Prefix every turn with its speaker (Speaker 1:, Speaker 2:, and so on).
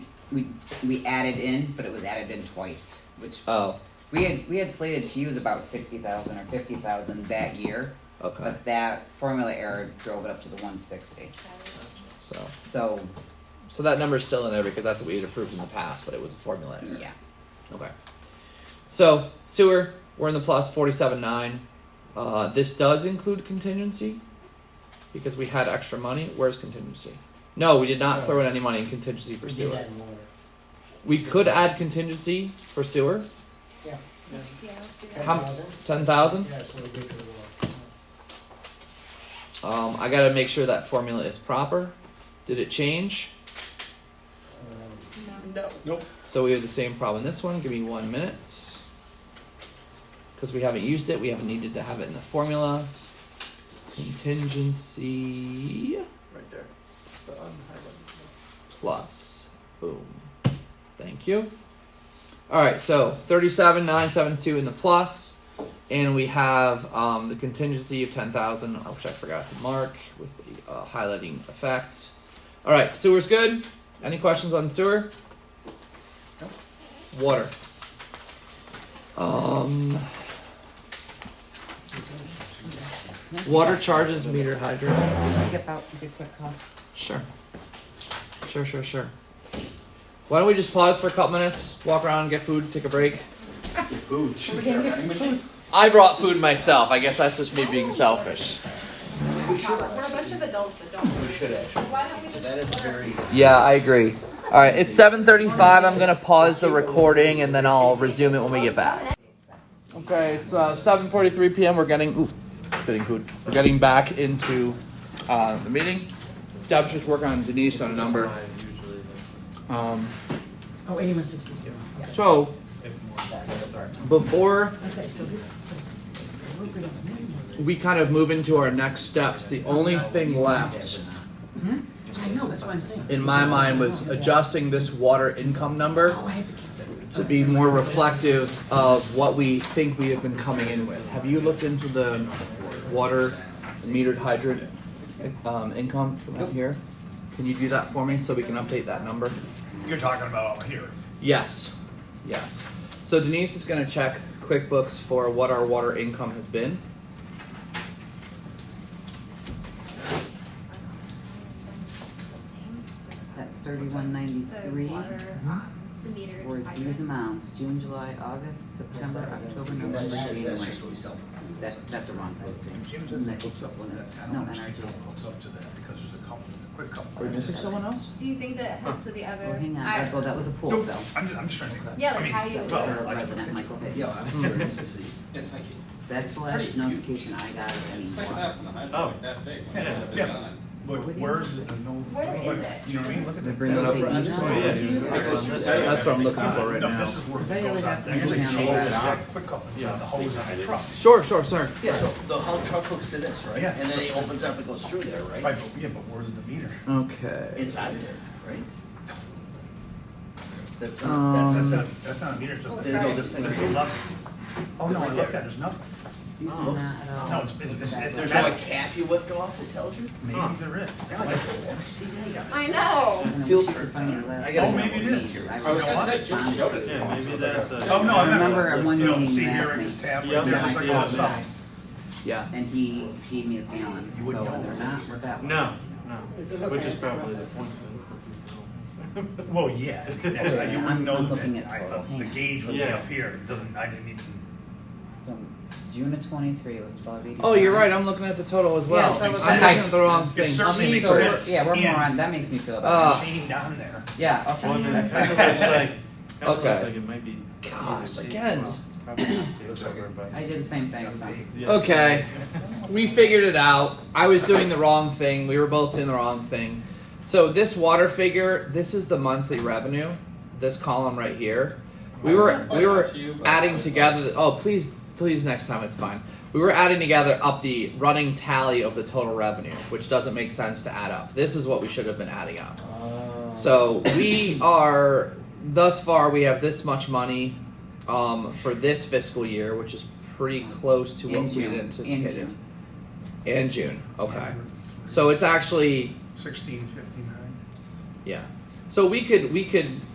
Speaker 1: we we added in, but it was added in twice, which
Speaker 2: Oh,
Speaker 1: we had we had slated to use about sixty thousand or fifty thousand that year,
Speaker 2: okay.
Speaker 1: but that formula error drove it up to the one sixty.
Speaker 2: So,
Speaker 1: So
Speaker 2: so that number's still in there because that's what we had approved in the past, but it was a formula error.
Speaker 1: yeah,
Speaker 2: Okay. So sewer, we're in the plus forty-seven nine. Uh, this does include contingency because we had extra money. Where's contingency? No, we did not throw in any money in contingency for
Speaker 3: We did
Speaker 2: sewer.
Speaker 3: that in water.
Speaker 2: We could add contingency for sewer,
Speaker 4: Yeah, let's do that.
Speaker 2: How-
Speaker 3: 10,000?
Speaker 2: ten thousand.
Speaker 3: Yeah, that's what we did for water.
Speaker 2: Um, I gotta make sure that formula is proper. Did it change?
Speaker 3: Um,
Speaker 4: No.
Speaker 2: So we have the same problem in this one. Give me one minute. Because we haven't used it, we haven't needed to have it in the formula. Contingency.
Speaker 5: Right there. The unhighlighted.
Speaker 2: plus. Boom. Thank you. All right, so 37,972 in the plus, and we have um, the contingency of 10,000, which I forgot to mark with the uh, highlighting effect. All right, sewer's good. Any questions on sewer? Water. Um, water charges meter hydrant.
Speaker 1: skip out to be quick call.
Speaker 2: Sure. Sure, sure, sure. Why don't we just pause for a couple minutes, walk around, get food, take a break?
Speaker 5: Food.
Speaker 1: We're gonna get
Speaker 2: I brought food myself. I guess that's just me being selfish.
Speaker 4: We're a bunch of adults that don't.
Speaker 5: We should actually.
Speaker 4: Why don't we
Speaker 5: So
Speaker 4: just?
Speaker 5: that is very.
Speaker 2: Yeah, I agree. All right, it's 7:35. I'm gonna pause the recording and then I'll resume it when we get back. Okay, it's uh, 7:43 p.m. We're getting ooh, getting food. We're getting back into uh, the meeting. Deb's just working on Denise on a number. Um,
Speaker 3: Oh, eighty-one sixty-two.
Speaker 2: so before
Speaker 3: Okay, so this.
Speaker 2: we kind of move into our next steps. The only thing left
Speaker 3: I know, that's what I'm saying.
Speaker 2: in my mind was adjusting this water income number
Speaker 3: Oh, I had to cancel.
Speaker 2: to be more reflective of what we think we have been coming in with. Have you looked into the water metered hydrant um, income from out here? Can you do that for me so we can update that number?
Speaker 6: You're talking about over here.
Speaker 2: Yes, yes. So Denise is going to check QuickBooks for what our water income has been.
Speaker 1: That's thirty-one ninety-three.
Speaker 4: The water, um, the meter.
Speaker 1: Or these amounts, June, July, August, September, October, November,
Speaker 5: That's, that's
Speaker 1: January.
Speaker 5: just what we self.
Speaker 1: That's, that's a wrong posting.
Speaker 5: Jim's.
Speaker 1: No, this one is- no, NRG.
Speaker 5: Hooks up to that because there's a couple, a quick couple.
Speaker 2: Are we missing someone else?
Speaker 4: Do you think that helps with the other?
Speaker 1: Oh, hang on,
Speaker 4: I-
Speaker 1: Michael, that was a pool
Speaker 6: Nope.
Speaker 1: though.
Speaker 6: I'm just, I'm just trying to. think.
Speaker 4: Yeah,
Speaker 6: I
Speaker 4: like
Speaker 6: mean,
Speaker 4: how you.
Speaker 6: well,
Speaker 1: For
Speaker 6: I-
Speaker 1: resident Michael Pitt.
Speaker 5: Yeah, I'm
Speaker 2: Hmm.
Speaker 5: curious to see.
Speaker 7: It's like,
Speaker 1: That's the last notification I got of
Speaker 7: it's
Speaker 1: any
Speaker 7: like
Speaker 1: water.
Speaker 7: that one, I don't like that big. one.
Speaker 6: Oh. Yeah, yeah. Look, where's the no?
Speaker 4: Where is
Speaker 6: look,
Speaker 4: it?
Speaker 6: You know what I mean? Look at that.
Speaker 2: Bring that up.
Speaker 1: Is
Speaker 2: That's what I'm looking for right
Speaker 6: No,
Speaker 2: now.
Speaker 6: This is where
Speaker 1: Is that
Speaker 6: it goes
Speaker 1: really
Speaker 6: out.
Speaker 1: that
Speaker 6: There's a
Speaker 1: small?
Speaker 6: chain,
Speaker 1: Yeah.
Speaker 6: it's got a quick couple, yeah, the hose on the truck.
Speaker 2: Sure, sure, sure.
Speaker 5: Yeah, so the whole truck hooks to this, right?
Speaker 6: Yeah.
Speaker 5: And then it opens up and goes through there, right?
Speaker 6: Right, but, yeah, but where's the meter?
Speaker 2: Okay.
Speaker 5: It's out of there, right? That's,
Speaker 2: Um,
Speaker 5: not-
Speaker 6: That's
Speaker 5: that's,
Speaker 6: not,
Speaker 5: not-
Speaker 6: that's not a meter,
Speaker 4: Oh,
Speaker 6: it's a.
Speaker 5: They know this thing.
Speaker 6: There's a level. Oh, no, I looked at, it, there's nothing.
Speaker 1: These are
Speaker 5: Oh.
Speaker 1: not at all.
Speaker 6: No, it's- it's- it's- it's-
Speaker 5: there's no like, cap you lift off that tells you?
Speaker 6: Maybe there is.
Speaker 5: Yeah, like, see, now you got it.
Speaker 4: I know.
Speaker 1: I don't know,
Speaker 5: Field
Speaker 1: we should
Speaker 5: trip.
Speaker 1: find the last
Speaker 5: I gotta
Speaker 1: one.
Speaker 6: know. Oh, maybe it is.
Speaker 1: Jeez,
Speaker 7: I was gonna
Speaker 1: really
Speaker 7: say, just
Speaker 1: respond
Speaker 7: showed
Speaker 1: to
Speaker 7: it.
Speaker 1: it.
Speaker 7: Yeah,
Speaker 8: maybe that's a-
Speaker 6: Oh, no, I
Speaker 1: I
Speaker 6: remember.
Speaker 1: remember at one
Speaker 6: You know,
Speaker 1: meeting
Speaker 6: see
Speaker 1: you
Speaker 6: here
Speaker 1: asked
Speaker 6: in this
Speaker 1: me,
Speaker 6: tab,
Speaker 8: Yeah,
Speaker 6: right there,
Speaker 1: I
Speaker 6: it's like
Speaker 1: saw
Speaker 6: all
Speaker 1: it.
Speaker 6: something.
Speaker 1: and
Speaker 2: Yes.
Speaker 1: he gave me his gallons, so
Speaker 6: wouldn't know.
Speaker 1: they're not with that one.
Speaker 8: No, no, which is probably the point. though.
Speaker 6: Well, yeah, I mean, that's, you
Speaker 1: I'm-
Speaker 6: wouldn't know
Speaker 1: I'm looking
Speaker 6: that,
Speaker 1: at
Speaker 6: I,
Speaker 1: total.
Speaker 6: the- the
Speaker 1: Hang on.
Speaker 6: gauge would be
Speaker 8: Yeah.
Speaker 6: up here, it doesn't, I didn't even.
Speaker 1: So June of twenty-three was twelve eighty-five.
Speaker 2: Oh, you're right. I'm looking at the total as well.
Speaker 1: Yes, that was-
Speaker 2: I'm looking at the wrong thing.
Speaker 6: It's certainly
Speaker 1: So, we're-
Speaker 6: Chris
Speaker 1: yeah, we're
Speaker 6: and-
Speaker 1: more on, that makes me feel
Speaker 2: Uh,
Speaker 1: better.
Speaker 6: Chain down there.
Speaker 2: Oh.
Speaker 1: Yeah,
Speaker 8: Well, I mean,
Speaker 1: that's
Speaker 8: kind of
Speaker 1: better.
Speaker 8: looks like, kind of
Speaker 2: Okay.
Speaker 8: looks like it might be.
Speaker 2: Gosh,
Speaker 8: either
Speaker 2: again,
Speaker 8: T- well,
Speaker 2: just-
Speaker 8: probably not T,
Speaker 5: Looks like it.
Speaker 8: but-
Speaker 1: I did the same thing, so.
Speaker 8: yeah.
Speaker 2: Okay. We figured it out. I was doing the wrong thing. We were both doing the wrong thing. So this water figure, this is the monthly revenue. This column right here. We were we were adding together. The, oh, please, please, next time it's fine. We were adding together up the running tally of the total revenue, which doesn't make sense to add up. This is what we should have been adding up. So we are thus far we have this much money um, for this fiscal year, which is pretty close to what
Speaker 1: In
Speaker 2: we had
Speaker 1: June, in
Speaker 2: anticipated.
Speaker 1: June.
Speaker 2: And June, okay. So it's actually
Speaker 6: Sixteen fifty-nine.
Speaker 2: yeah. So we could we could